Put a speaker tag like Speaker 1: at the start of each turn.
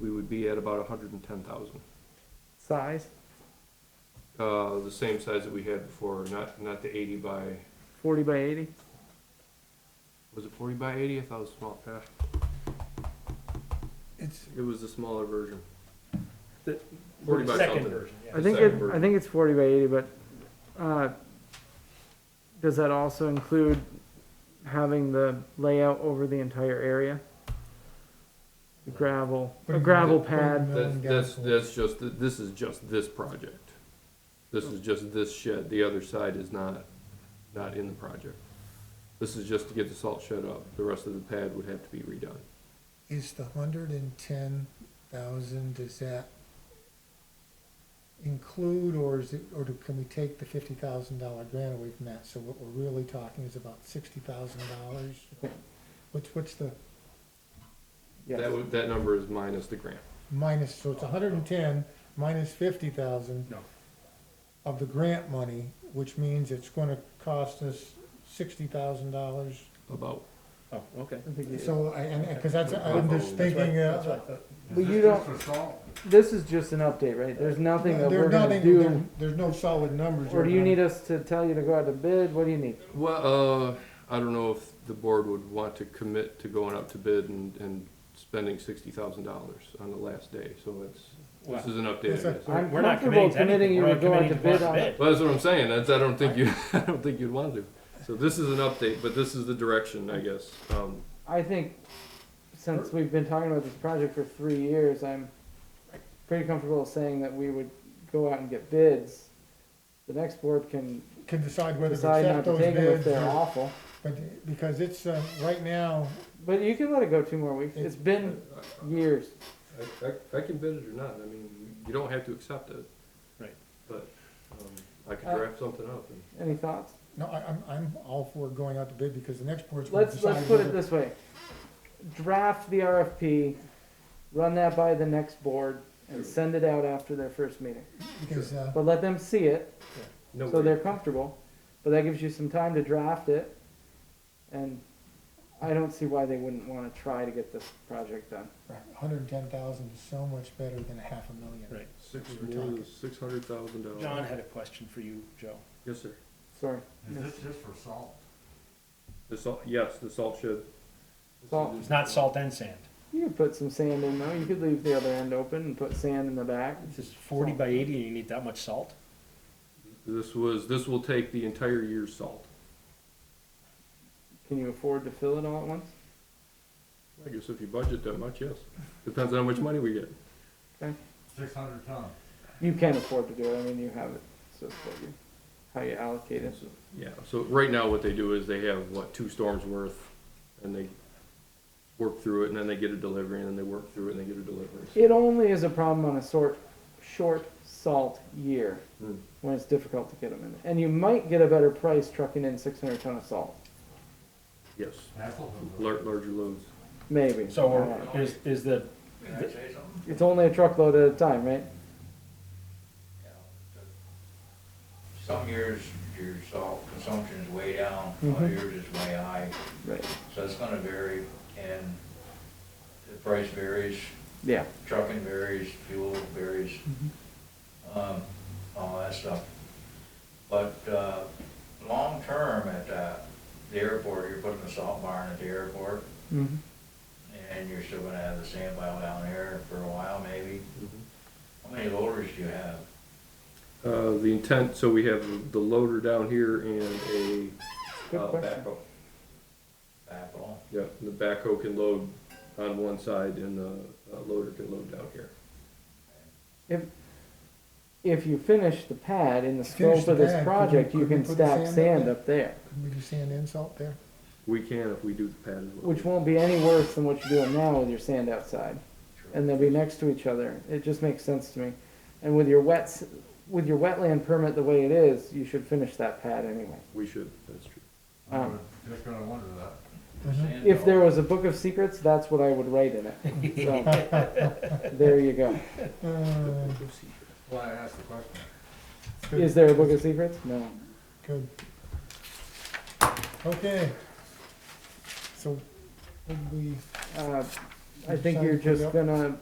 Speaker 1: we would be at about a hundred and ten thousand.
Speaker 2: Size,
Speaker 1: Uh, the same size that we had before, not, not the eighty by,
Speaker 2: forty by eighty?
Speaker 1: was it forty by eighty? I thought it was small, gosh,
Speaker 3: It's,
Speaker 1: it was the smaller version.
Speaker 3: The-
Speaker 1: Forty by
Speaker 3: second
Speaker 1: something.
Speaker 3: version,
Speaker 2: I
Speaker 3: yeah.
Speaker 2: think
Speaker 1: Second
Speaker 2: it, I
Speaker 1: version.
Speaker 2: think it's forty by eighty, but, uh, does that also include having the layout over the entire area? The Gravel, a gravel pad,
Speaker 1: That's, that's, that's just, this is just this project. This is just this shed, the other side is not, not in the project. This is just to get the salt shed up, the rest of the pad would have to be redone.
Speaker 4: Is the hundred and ten thousand, does that include, or is it, or do, can we take the fifty thousand dollar grant away from that? So what we're really talking is about sixty thousand dollars? What's, what's the
Speaker 1: That
Speaker 2: yes,
Speaker 1: would, that number is minus the grant.
Speaker 4: minus, so it's a hundred and ten minus fifty thousand
Speaker 3: No,
Speaker 4: of the grant money, which means it's gonna cost us sixty thousand dollars?
Speaker 1: About,
Speaker 3: oh, okay.
Speaker 2: I think it-
Speaker 4: So, I, and, and- cause that's, I'm just thinking,
Speaker 3: That's
Speaker 4: uh,
Speaker 3: what I thought.
Speaker 2: But you don't, this is just an update, right? There's nothing that
Speaker 4: there's
Speaker 2: we're gonna
Speaker 4: nothing, there-
Speaker 2: do,
Speaker 4: there's no solid numbers.
Speaker 2: or do
Speaker 4: we're
Speaker 2: you
Speaker 4: gonna-
Speaker 2: need us to tell you to go out to bid? What do you need?
Speaker 1: well, uh, I don't know if the board would want to commit to going up to bid and, and spending sixty thousand dollars on the last day, so it's, this
Speaker 3: Well,
Speaker 1: is an update, I
Speaker 4: Yes, sir.
Speaker 1: guess.
Speaker 2: I'm
Speaker 3: We're not
Speaker 2: comfortable
Speaker 3: committing to
Speaker 2: committing
Speaker 3: anything,
Speaker 2: you
Speaker 3: we're
Speaker 2: to
Speaker 3: not
Speaker 2: go out to
Speaker 3: committing to
Speaker 2: bid
Speaker 3: one
Speaker 2: on it.
Speaker 3: bid.
Speaker 1: Well, that's what I'm saying, that's, I don't think you, I don't think you'd want to. So this is an update, but this is the direction, I guess. Um,
Speaker 2: I think, since we've been talking about this project for three years, I'm pretty comfortable saying that we would go out and get bids. The next board can
Speaker 4: can decide whether to
Speaker 2: decide not
Speaker 4: accept
Speaker 2: to
Speaker 4: those
Speaker 2: take them if
Speaker 4: bids,
Speaker 2: they're
Speaker 4: or-
Speaker 2: awful,
Speaker 4: but, because it's, uh, right now,
Speaker 2: but you can let it go two more weeks, it's been
Speaker 4: uh,
Speaker 2: years.
Speaker 1: I, I, I can bid it or not, I mean, you don't have to accept it.
Speaker 3: Right.
Speaker 1: But, um, I could draft something up and.
Speaker 2: Any thoughts?
Speaker 4: no, I, I'm, I'm all for going out to bid, because the next board's gonna
Speaker 2: Let's,
Speaker 4: decide.
Speaker 2: let's put it
Speaker 4: whether-
Speaker 2: this way. Draft the RFP, run that by the next board, and send it out after their first meeting.
Speaker 4: Because, uh,
Speaker 2: But let them see it,
Speaker 1: no
Speaker 2: So
Speaker 1: worries.
Speaker 2: they're comfortable, but that gives you some time to draft it, and I don't see why they wouldn't wanna try to get this project done.
Speaker 4: hundred and ten thousand is so much better than a half a million.
Speaker 3: Right.
Speaker 1: Six,
Speaker 4: we were talking.
Speaker 1: six hundred thousand dollars.
Speaker 3: John had a question for you, Joe.
Speaker 1: Yes, sir.
Speaker 2: Sorry.
Speaker 5: Is this just for salt?
Speaker 1: The salt, yes, the salt shed.
Speaker 2: Salt.
Speaker 3: It's not salt and sand.
Speaker 2: You could put some sand in though, you could leave the other end open and put sand in the back.
Speaker 3: This is forty by eighty and you need that much salt?
Speaker 1: This was, this will take the entire year's salt.
Speaker 2: Can you afford to fill it all at once?
Speaker 1: I guess if you budget that much, yes. Depends on how much money we get.
Speaker 5: Six hundred ton.
Speaker 2: You can afford to do it, I mean, you have it, so it's what you, how you allocate it.
Speaker 1: So, Yeah, so right now what they do is they have, what, two storms worth, and they work through it, and then they get a delivery, and then they work through it, and they get a delivery.
Speaker 2: It only is a problem on a sort, short salt year,
Speaker 1: Hmm.
Speaker 2: when it's difficult to get them in. And you might get a better price trucking in six hundred ton of salt,
Speaker 1: Yes,
Speaker 5: That's what we'll do.
Speaker 1: lar- larger loads.
Speaker 2: maybe.
Speaker 3: So
Speaker 2: I don't know.
Speaker 3: we're- is, is the,
Speaker 5: Can I say something?
Speaker 2: It's only a truckload at a time, right?
Speaker 5: Some years, your salt consumption is way down,
Speaker 2: Mhm.
Speaker 5: other years it's way high,
Speaker 2: Right.
Speaker 5: so it's gonna vary, and the price varies,
Speaker 2: Yeah.
Speaker 5: trucking varies, fuel varies,
Speaker 4: Mm-hmm.
Speaker 5: um, all that stuff. But, uh, long-term at, uh, the airport, you're putting a salt barn at the airport,
Speaker 2: Mm-hmm.
Speaker 5: and you're still gonna have the sand pile down there for a while, maybe. How many loaders do you have?
Speaker 1: Uh, the intent, so we have the loader down here and a
Speaker 2: Good
Speaker 4: Oh,
Speaker 1: uh,
Speaker 2: question.
Speaker 1: backhoe.
Speaker 5: Backhoe?
Speaker 1: Yeah, the backhoe can load on one side, and the uh, loader can load down here.
Speaker 2: If if you finish the pad in the
Speaker 4: Finish
Speaker 2: scope
Speaker 4: the
Speaker 2: of this
Speaker 4: pad,
Speaker 2: project,
Speaker 4: could we-
Speaker 2: you
Speaker 4: could we
Speaker 2: can
Speaker 4: put the
Speaker 2: stack
Speaker 4: sand up
Speaker 2: sand
Speaker 4: there?
Speaker 2: up there,
Speaker 4: Would you sand and salt there?
Speaker 1: We can if we do the pad as well.
Speaker 2: which won't be any worse than what you're doing now with your sand outside, and they'll be next to each other. It just makes sense to me. And with your wet s- with your wetland permit the way it is, you should finish that pad anyway.
Speaker 1: We should, that's true.
Speaker 5: I
Speaker 2: Um,
Speaker 5: was Just gonna wonder that.
Speaker 4: Mhm.
Speaker 2: Mm-hmm. If there was a book of secrets, that's what I would write in it. So, there you go.
Speaker 4: Uh,
Speaker 5: Why I asked the question.
Speaker 4: good,
Speaker 2: Is there a book of secrets? No.
Speaker 4: Good. Okay. So, would we,
Speaker 2: Uh, I
Speaker 4: You're
Speaker 2: think
Speaker 4: signing
Speaker 2: Uh, you're
Speaker 4: for the
Speaker 2: just
Speaker 4: up-
Speaker 2: gonna